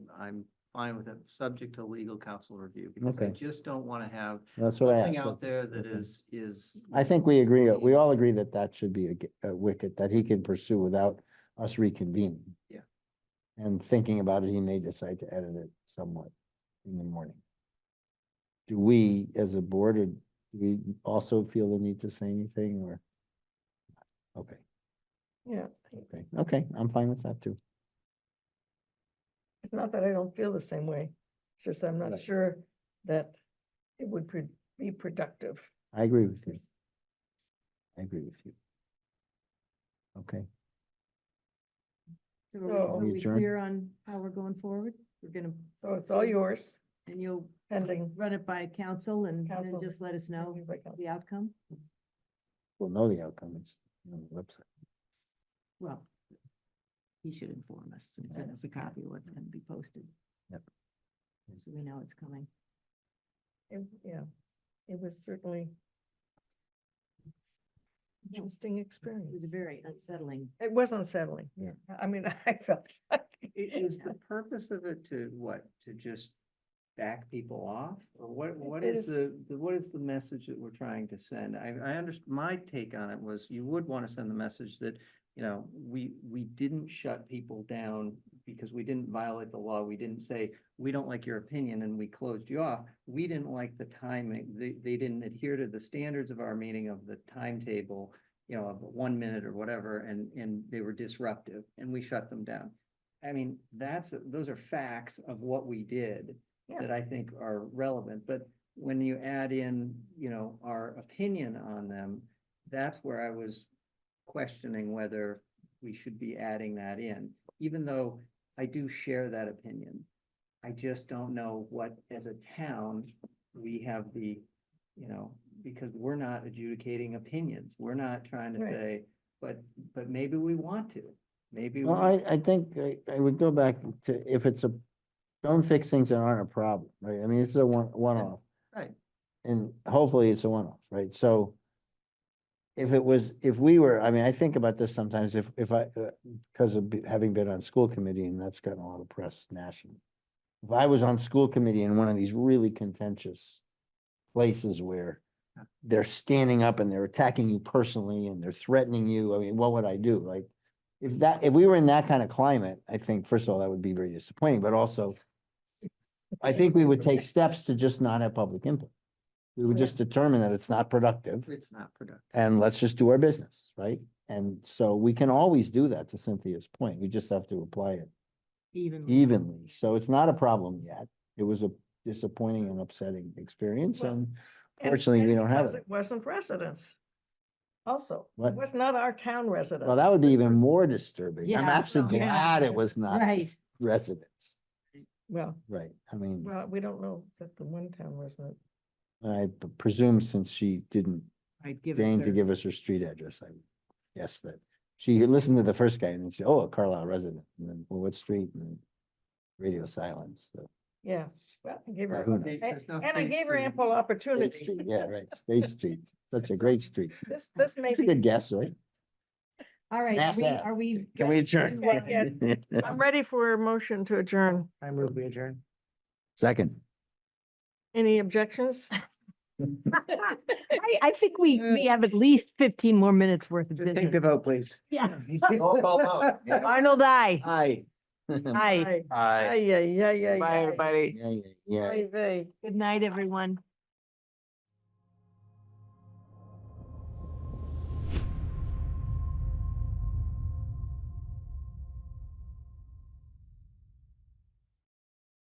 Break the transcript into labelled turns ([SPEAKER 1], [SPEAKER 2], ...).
[SPEAKER 1] I'm fine with it, subject to legal counsel review, because I
[SPEAKER 2] Okay.
[SPEAKER 1] just don't want to have
[SPEAKER 2] That's what I
[SPEAKER 1] something
[SPEAKER 2] asked.
[SPEAKER 1] out there that
[SPEAKER 2] Okay.
[SPEAKER 1] is, is.
[SPEAKER 2] I think we agree, uh, we all agree that that should be a g- a wicket that he can pursue without us reconvening.
[SPEAKER 1] Yeah.
[SPEAKER 2] And thinking about it, he may decide to edit it somewhat in the morning. Do we, as a board, or do we also feel the need to say anything or? Okay,
[SPEAKER 3] Yeah,
[SPEAKER 2] okay, okay, I'm fine with that too.
[SPEAKER 3] it's not that I don't feel the same way. It's just I'm not
[SPEAKER 2] Right.
[SPEAKER 3] sure that it would pro- be productive.
[SPEAKER 2] I agree with you. I agree with you. Okay,
[SPEAKER 4] So are
[SPEAKER 2] We
[SPEAKER 4] we- are we
[SPEAKER 2] adjourn?
[SPEAKER 4] clear on how we're going forward? We're gonna,
[SPEAKER 3] So it's all yours
[SPEAKER 4] and you'll
[SPEAKER 3] pending.
[SPEAKER 4] run it by council and then
[SPEAKER 3] Council.
[SPEAKER 4] just let us know
[SPEAKER 3] review by council.
[SPEAKER 4] the outcome?
[SPEAKER 2] we'll know the outcome, it's on the website.
[SPEAKER 4] Well, he should inform us and send us a copy of what's gonna be posted.
[SPEAKER 2] Yep.
[SPEAKER 4] So we know it's coming.
[SPEAKER 3] It- Yeah, it was certainly interesting experience.
[SPEAKER 4] It was a very unsettling.
[SPEAKER 3] It was unsettling.
[SPEAKER 2] Yeah.
[SPEAKER 3] I mean, I felt. like-
[SPEAKER 1] I- Is the purpose of it to what? To just back people off? Or what, what
[SPEAKER 3] it
[SPEAKER 1] is
[SPEAKER 3] is-
[SPEAKER 1] the, the- what is the message that we're trying to send? I, I underst, my take on it was you would want to send the message that, you know, we, we didn't shut people down because we didn't violate the law. We didn't say, we don't like your opinion and we closed you off. We didn't like the timing. They, they didn't adhere to the standards of our meeting of the timetable, you know, of one minute or whatever, and, and they were disruptive and we shut them down. I mean, that's, those are facts of what we did
[SPEAKER 3] Yeah.
[SPEAKER 1] that I think are relevant, but when you add in, you know, our opinion on them, that's where I was questioning whether we should be adding that in, even though I do share that opinion. I just don't know what, as a town, we have the, you know, because we're not adjudicating opinions. We're not trying to
[SPEAKER 3] Right.
[SPEAKER 1] say, but, but maybe we want to, maybe.
[SPEAKER 2] Well,
[SPEAKER 1] we-
[SPEAKER 2] I, I think I, I would go back to if it's a, don't fix things that aren't a problem, right? I mean, this is a one, one-off.
[SPEAKER 1] Right.
[SPEAKER 2] And hopefully it's a one-off, right? So if it was, if we were, I mean, I think about this sometimes if, if I, because of be- having been on school committee and that's gotten a lot of press nationally. If I was on school committee in one of these really contentious places where they're standing up and they're attacking you personally and they're threatening you, I mean, what would I do? Like, if that, if we were in that kind of climate, I think, first of all, that would be very disappointing, but also I think we would take steps to just not have public input. We would
[SPEAKER 3] Yeah.
[SPEAKER 2] just determine that it's not productive
[SPEAKER 1] It's not productive.
[SPEAKER 2] and let's just do our business, right? And so we can always do that to Cynthia's point. We just have to apply it
[SPEAKER 4] Even,
[SPEAKER 2] evenly. So it's not a problem yet. It was a disappointing and upsetting experience
[SPEAKER 3] Well,
[SPEAKER 2] and
[SPEAKER 3] And-
[SPEAKER 2] fortunately, we
[SPEAKER 3] and
[SPEAKER 2] don't have
[SPEAKER 3] because
[SPEAKER 2] it.
[SPEAKER 3] It wasn't residents. Also,
[SPEAKER 2] What?
[SPEAKER 3] it was not our town residents.
[SPEAKER 2] Well, that would be
[SPEAKER 3] This
[SPEAKER 2] even
[SPEAKER 3] was-
[SPEAKER 2] more disturbing. I'm
[SPEAKER 4] Yeah,
[SPEAKER 2] actually
[SPEAKER 4] well, yeah.
[SPEAKER 2] glad it was not
[SPEAKER 4] right,
[SPEAKER 2] residents,
[SPEAKER 3] Well,
[SPEAKER 2] right? I mean.
[SPEAKER 3] well, we don't know that the one town resident.
[SPEAKER 2] And I p- presume since she didn't
[SPEAKER 4] right, give us
[SPEAKER 2] deign to
[SPEAKER 4] their-
[SPEAKER 2] give us her street address, I guess that she listened to the first guy and then she, oh, a Carlisle resident, and then, well, what street? And radio silence, so.
[SPEAKER 3] Yeah, well, I gave
[SPEAKER 2] Well,
[SPEAKER 3] her,
[SPEAKER 2] who knows?
[SPEAKER 3] a-
[SPEAKER 1] There's no
[SPEAKER 3] and I
[SPEAKER 1] state
[SPEAKER 3] gave her
[SPEAKER 1] street.
[SPEAKER 3] ample
[SPEAKER 2] State
[SPEAKER 3] opportunity.
[SPEAKER 2] Street, yeah, right, State Street, such a great street.
[SPEAKER 3] This, this may
[SPEAKER 2] It's a
[SPEAKER 3] be,
[SPEAKER 2] good guess, right?
[SPEAKER 4] All right, are
[SPEAKER 2] Mass
[SPEAKER 4] we-
[SPEAKER 2] app.
[SPEAKER 4] are we?
[SPEAKER 2] Can we adjourn?
[SPEAKER 3] Yeah, yes. I'm ready for a motion to adjourn.
[SPEAKER 1] I move we adjourn.
[SPEAKER 2] Second.
[SPEAKER 3] Any objections?
[SPEAKER 4] I, I think we, we have at least fifteen more minutes worth of
[SPEAKER 5] Mm-hmm.
[SPEAKER 2] Take the
[SPEAKER 4] business.
[SPEAKER 2] vote, please.
[SPEAKER 4] Yeah.
[SPEAKER 2] Roll call vote.
[SPEAKER 4] Arnold, I,
[SPEAKER 2] Aye.
[SPEAKER 3] Aye.
[SPEAKER 4] I,
[SPEAKER 3] Aye, aye, aye, aye.
[SPEAKER 5] Bye, everybody.
[SPEAKER 2] Yeah, yeah, yeah.
[SPEAKER 3] Aye, aye.
[SPEAKER 4] good night, everyone.